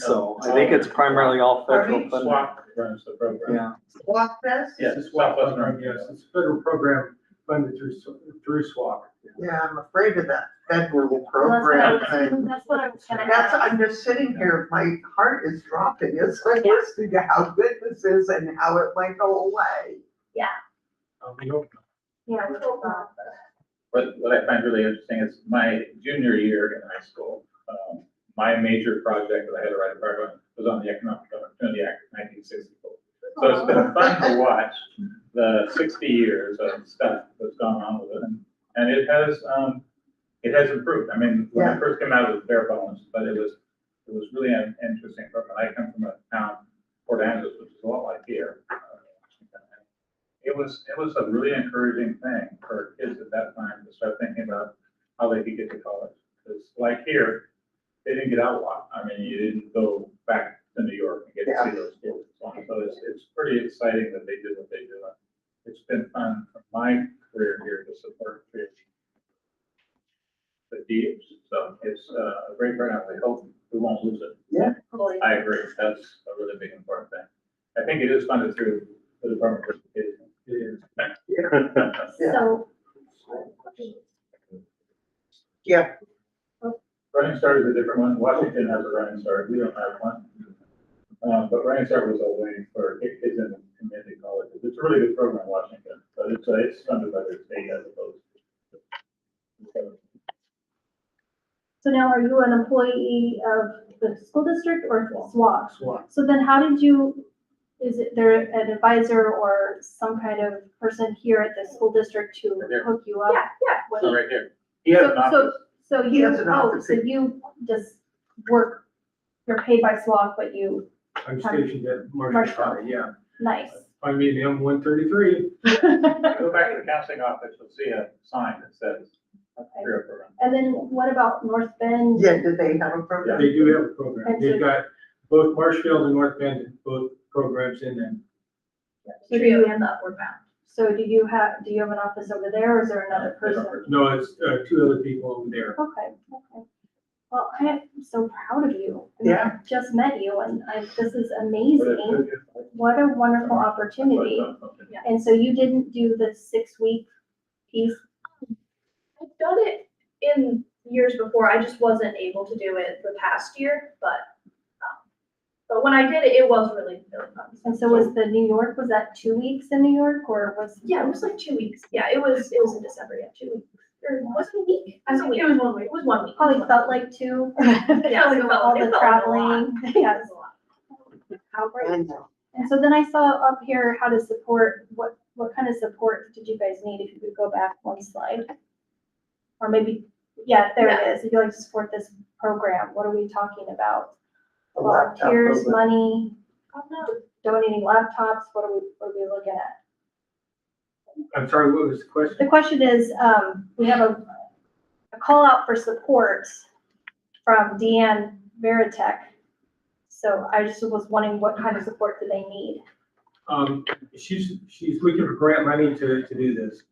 So I think it's primarily all federal funding, SWAC runs the program. yeah. Walk Fest? Yes, SWAC was run, Yes, yes. it's a federal program funded through, through SWAC. Yeah, I'm afraid of that federal Well, program that's what I was- thing. That's what I was gonna That's, ask. I'm just sitting here, my heart is dropping, it's like listening to how good this is and how it might go away. Um, you know, Yeah, cool. What, what I find really interesting is my junior year in high school, um, my major project that I had to write a part on was on the Economic Opportunity Act of nineteen sixty-four. So it's been fun to watch the sixty years of stuff that's gone on with it. and- And it has, um, it has improved. I mean, when it first came out, it was bare bones, but it was, it was really an interesting program. I come from a town, Port Angeles, which is a lot like here. uh, it was, it was a really encouraging thing for kids at that time to start thinking about how they could get to college. Because like here, they didn't get out a lot. I mean, you didn't go back to New York and get to see those schools. and so on. So it's, it's pretty exciting that they did what they did. It's been fun for my career here to support kids. The deeps, so it's uh, a great turnout. We hope we won't lose it. I agree. That's a really big important thing. I think it is funded through the Department of Education. it is. So, Running Start is a different one. Washington has a Running Start. We don't have one. Um, but Running Start was a way for kids in community colleges. It's a really good program in Washington, but it's, uh, it's funded by the state as opposed to. so now are you an employee of the school district or SWAC? SWAC. So then how did you, is it there an advisor or some kind of person here at the school district to Right there. hook you up? Yeah, yeah, What- So right here. He has So, an office. so, so He you, has an oh, office so you just work, you're paid by SWAC, but you, I'm stationed at Marshall Marshall. County, yeah. nice. I'm in M one thirty-three. Go back to the counseling office, you'll see a sign that says career program. And then what about North Bend? Yeah, do they have a program? They do have a program. And They've so- got both Marshfield and North Bend, both programs in them. So do you end up or bound? So do you have, do you have an office over there or is there another They don't person? work. No, it's, uh, two other people over there. Okay, okay. Well, I am so proud of you. I mean, I Just met you and I, this is But it's- amazing. it's- What a wonderful opportunity. And so you didn't do the six-week piece? I've done it in years before, I just wasn't able to do it the past year, but, um, but when I did it, it was really, really fun. And so was the New York, was that two weeks in New York or was? Yeah, it was like two weeks, yeah, it was, it was in December, yeah, two weeks, or was it a week? I think it was one week, it was one week. Probably felt like two. Yeah, it felt- All it the felt like a lot. traveling. Yes. It was a lot. How great. I know. And so then I saw up here how to support, what, what kind of support did you guys need, if you could go back one slide? Or maybe, yeah, there Yeah. it is, if you like to support this program, what are we talking about? A laptop Volunteers, program. money, I don't know. donating laptops, what are we, what are we looking at? I'm sorry, what was the question? The question is, um, we have a, a call out for support from Deanne Veritek. So I just was wondering what kind of support do they need? Um, she's, she's looking for grant money to, to do this.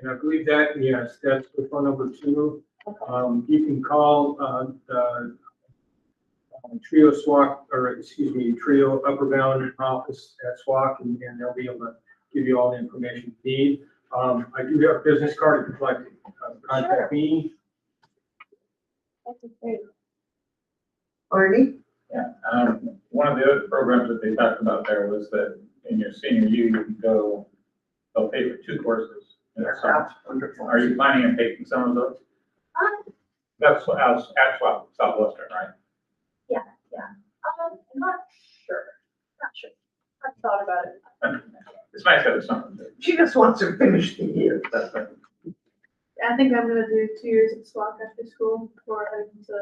And I believe that, yes, that's the phone number two. Um, you can call, uh, the uh, Trio SWAC, or excuse me, Trio Upper Bound Office at SWAC, and, and they'll be able to give you all the information you need. Um, I do have a business card if you'd like to uh, contact me. That's great. Arnie? Yeah, um, one of the other programs that they talked about there was that in your senior year, you can go, they'll pay for two courses. in the summer. That's wonderful. Are you planning on taking some of those? Um, That's what- at Swap, Southwestern, right? um, I'm not sure, not sure, I've thought about it. It's nice to have something. to- She just wants to finish the year. that's right. I think I'm gonna do two years at SWAC after school before heading to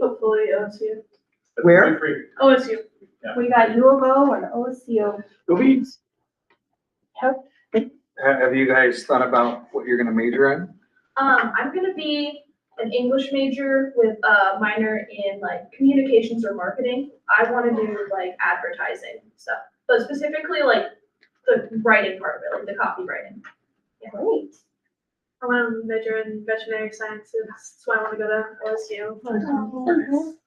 hopefully OSU. But Where? feel free. OSU. We got U of O and OSU. Yep. Ha- Have you guys thought about what you're gonna major in? Um, I'm gonna be an English major with a minor in like communications or marketing. I wanna do like advertising stuff, but specifically like the writing part of it, like the copywriting. Great. I want to major in veterinary sciences, so I want to go to OSU. Oh,